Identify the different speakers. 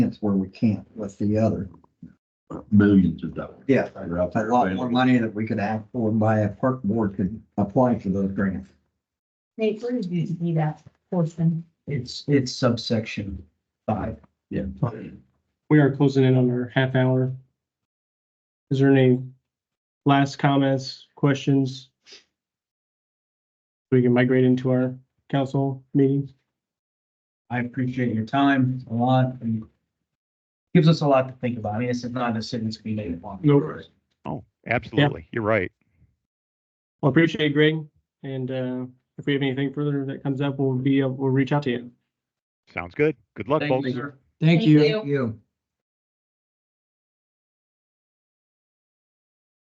Speaker 1: sense where we can't with the other.
Speaker 2: millions of dollars.
Speaker 1: Yeah.
Speaker 2: that are out
Speaker 1: A
Speaker 2: there
Speaker 1: lot more
Speaker 2: available.
Speaker 1: money that we could act for by a park board could apply for those grants.
Speaker 3: Nate, where did you see that portion?
Speaker 4: It's, it's subsection five.
Speaker 2: Yeah.
Speaker 5: we are closing in on our half hour. Is there any last comments, questions? We can migrate into our council meetings.
Speaker 4: I appreciate your time a lot and gives us a lot to think about. I mean, this is not a sentence we made upon.
Speaker 5: Nope.
Speaker 6: Oh, absolutely. You're right.
Speaker 5: Well, appreciate it, Greg. And uh, if we have anything further that comes up, we'll be, we'll reach out to you.
Speaker 6: Sounds good. Good luck,
Speaker 4: Thank
Speaker 6: folks.
Speaker 4: you, sir.
Speaker 3: Thank you.
Speaker 1: You.